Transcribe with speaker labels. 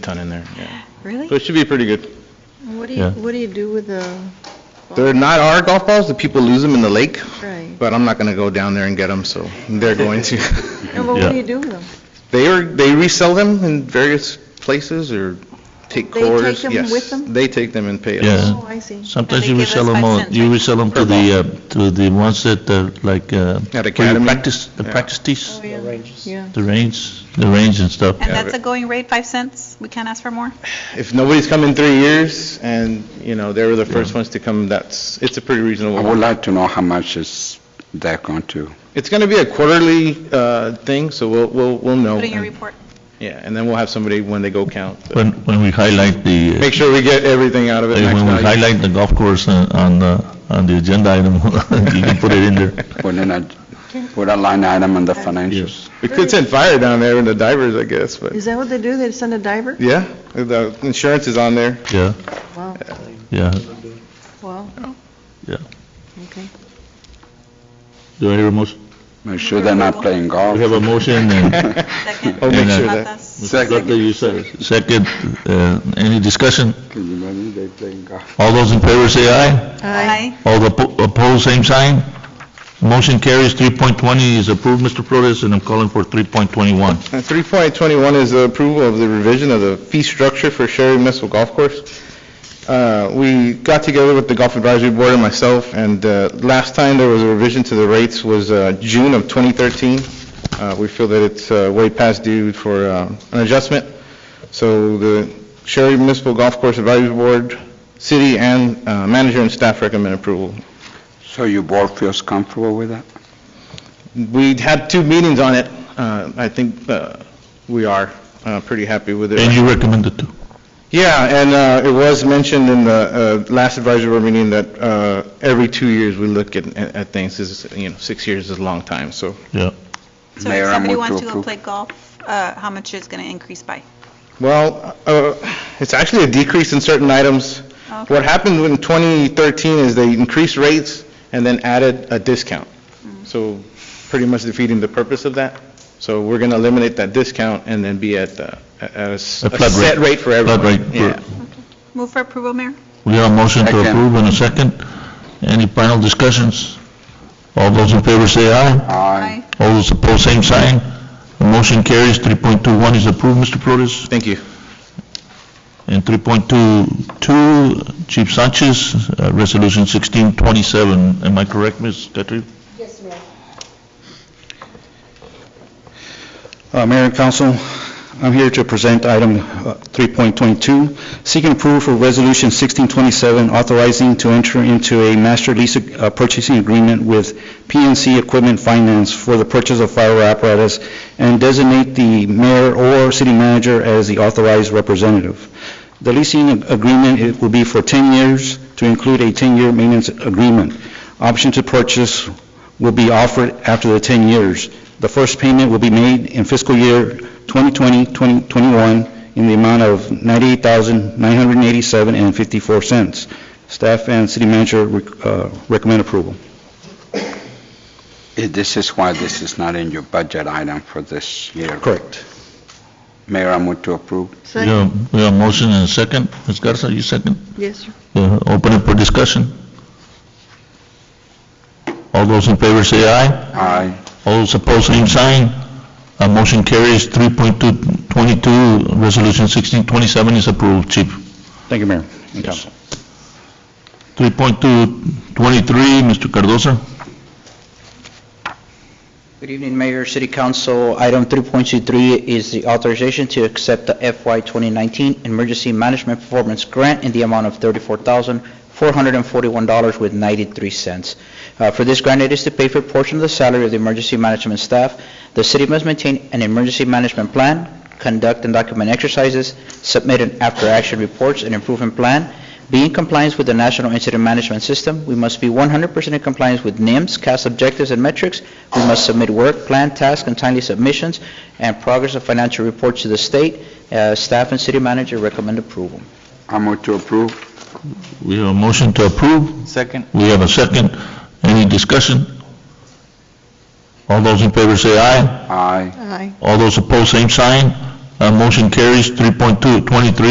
Speaker 1: ton in there, yeah.
Speaker 2: Really?
Speaker 1: So it should be pretty good.
Speaker 2: What do
Speaker 1: yeah.
Speaker 2: you, what do you do with the,
Speaker 1: They're not our golf balls, the people lose them in the lake,
Speaker 2: right?
Speaker 1: but I'm not going to go down there and get them, so they're going to.
Speaker 2: And what
Speaker 3: Yeah.
Speaker 2: do you do with them?
Speaker 1: They are, they resell them in various places or take
Speaker 2: They take
Speaker 1: cores.
Speaker 2: them
Speaker 1: Yes.
Speaker 2: with them?
Speaker 1: They take them and pay us.
Speaker 3: Yeah.
Speaker 2: Oh, I see.
Speaker 3: Sometimes
Speaker 4: they
Speaker 3: you
Speaker 4: give us
Speaker 3: resell them
Speaker 4: five
Speaker 3: all,
Speaker 4: cents,
Speaker 3: you
Speaker 4: right?
Speaker 3: resell them to
Speaker 1: Per
Speaker 3: the, uh, to the ones that are like, uh,
Speaker 1: At
Speaker 3: where you
Speaker 1: Academy.
Speaker 3: practice, the
Speaker 1: Yeah.
Speaker 3: practice tees,
Speaker 2: Oh, yeah, yeah.
Speaker 3: the range, the range and stuff.
Speaker 4: And
Speaker 1: Yeah,
Speaker 4: that's
Speaker 1: but-
Speaker 4: a going rate, five cents? We can't ask for more?
Speaker 1: If nobody's come in three years and, you know, they were the first ones to come, that's, it's a pretty
Speaker 5: I
Speaker 1: reasonable.
Speaker 5: would like to know how much is that going to,
Speaker 1: It's going to be a quarterly uh, thing, so we'll, we'll, we'll know.
Speaker 4: Put in your
Speaker 1: And-
Speaker 4: report.
Speaker 1: Yeah, and then we'll have somebody when they go count. so-
Speaker 3: When, when we highlight the, uh,
Speaker 1: Make sure we get everything out of it.
Speaker 3: when
Speaker 1: max
Speaker 3: we
Speaker 1: value.
Speaker 3: highlight the golf course on, on, uh, on the agenda item, you can put it in there.
Speaker 5: put in a, put a line item on the financials.
Speaker 1: We could send fire down there and the divers, I guess, but,
Speaker 2: Is that what they do? They send a diver?
Speaker 1: yeah, the insurance is on there.
Speaker 3: Yeah,
Speaker 2: Wow,
Speaker 3: yeah,
Speaker 2: wow,
Speaker 3: yeah.
Speaker 2: okay.
Speaker 3: Do I hear a motion?
Speaker 5: Make sure they're not playing golf.
Speaker 3: We have a motion and
Speaker 4: Second?
Speaker 1: I'll make
Speaker 3: And, uh,
Speaker 1: sure oh, that,
Speaker 4: Matas?
Speaker 3: Second. you said it. Second, uh, any discussion?
Speaker 5: Can you imagine they playing golf?
Speaker 3: All those in favor say aye.
Speaker 4: Aye.
Speaker 3: All the po- opposed, same sign. Motion carries. 3.20 is approved, Mr. Flores, and I'm calling for 3.21.
Speaker 1: Uh, 3.21 is the approval of the revision of the fee structure for Sherry Municipal Golf Course. Uh, We got together with the Golf Advisory Board and myself, and uh, last time there was a revision to the rates was uh, June of 2013. Uh, We feel that it's uh, way past due for uh, an adjustment. So the Sherry Municipal Golf Course Advisory Board, city and uh, manager and staff recommend approval.
Speaker 5: So your board feels comfortable with that?
Speaker 1: We had two meetings on it. Uh, I think uh, we are uh, pretty happy with it.
Speaker 3: And you recommend it to?
Speaker 1: Yeah, and uh, it was mentioned in the uh, last advisory board meeting that uh, every two years we look at at things, This is, you know, six years is a long time, so.
Speaker 3: Yeah.
Speaker 4: So
Speaker 5: Mayor,
Speaker 4: if
Speaker 5: I
Speaker 4: somebody
Speaker 5: move to
Speaker 4: wants to go
Speaker 5: approve.
Speaker 4: play golf, uh, how much is going to increase by?
Speaker 1: Well, uh, it's actually a decrease in certain items.
Speaker 4: Okay.
Speaker 1: What happened in 2013 is they increased rates and then added a discount, so pretty much defeating the purpose of that. So we're going to eliminate that discount and then be at uh, a- a s-
Speaker 3: A
Speaker 1: a
Speaker 3: flat
Speaker 1: set
Speaker 3: rate.
Speaker 1: rate for
Speaker 3: Flat
Speaker 1: everyone.
Speaker 3: rate per-
Speaker 1: Yeah.
Speaker 4: Move for approval, Mayor?
Speaker 3: We have a motion to
Speaker 5: Second.
Speaker 3: approve and a second. Any final discussions? All those in favor say aye.
Speaker 5: Aye.
Speaker 3: All those opposed, same sign. The motion carries. 3.21 is approved, Mr. Flores.
Speaker 1: Thank you.
Speaker 3: And 3.22, Chief Sanchez, uh, Resolution 1627. Am I correct, Ms. Catrina?
Speaker 6: Uh, Mayor and council, I'm here to present item uh, 3.22, seeking approval for Resolution 1627, authorizing to enter into a master lease uh, purchasing agreement with PNC Equipment Finance for the purchase of fire apparatus and designate the mayor or city manager as the authorized representative. The leasing agreement it will be for 10 years, to include a 10-year maintenance agreement. Option to purchase will be offered after the 10 years. The first payment will be made in fiscal year 2020-2021 in the amount of $98,987.54. Staff and city manager rec- uh, recommend approval.
Speaker 5: Eh, This is why this is not in your budget item for this year.
Speaker 6: Correct.
Speaker 5: Mayor, I move to approve.
Speaker 3: We
Speaker 2: Second,
Speaker 3: have we have a motion and a second. Ms. Garza, you second?
Speaker 2: yes, sir.
Speaker 3: Uh, Open it for discussion. All those in favor say aye.
Speaker 5: Aye.
Speaker 3: All those opposed, same sign. Uh, Motion carries. 3.22, Resolution 1627 is approved, Chief.
Speaker 6: Thank you, Mayor and council.
Speaker 3: 3.23, Mr. Cardoza.
Speaker 7: Good evening, Mayor, City Council. Item 3.23 is the authorization to accept the FY 2019 Emergency Management Performance Grant in the amount of $34,441.93. Uh, For this grant, it is to pay for a portion of the salary of the emergency management staff. The city must maintain an emergency management plan, conduct and document exercises, submit an after-action reports and improvement plan, be in compliance with the National Incident Management System. We must be 100% in compliance with NIMS, CAS objectives and metrics. We must submit work, plan, task, and timely submissions, and progress of financial reports to the state. Uh, Staff and city manager recommend approval.
Speaker 5: I move to approve.
Speaker 3: We have a motion to approve.
Speaker 1: Second.
Speaker 3: We have a second. Any discussion? All those in favor say aye.
Speaker 5: Aye.
Speaker 2: Aye.
Speaker 3: All those opposed, same sign. Uh, Motion carries. 3.2, 23,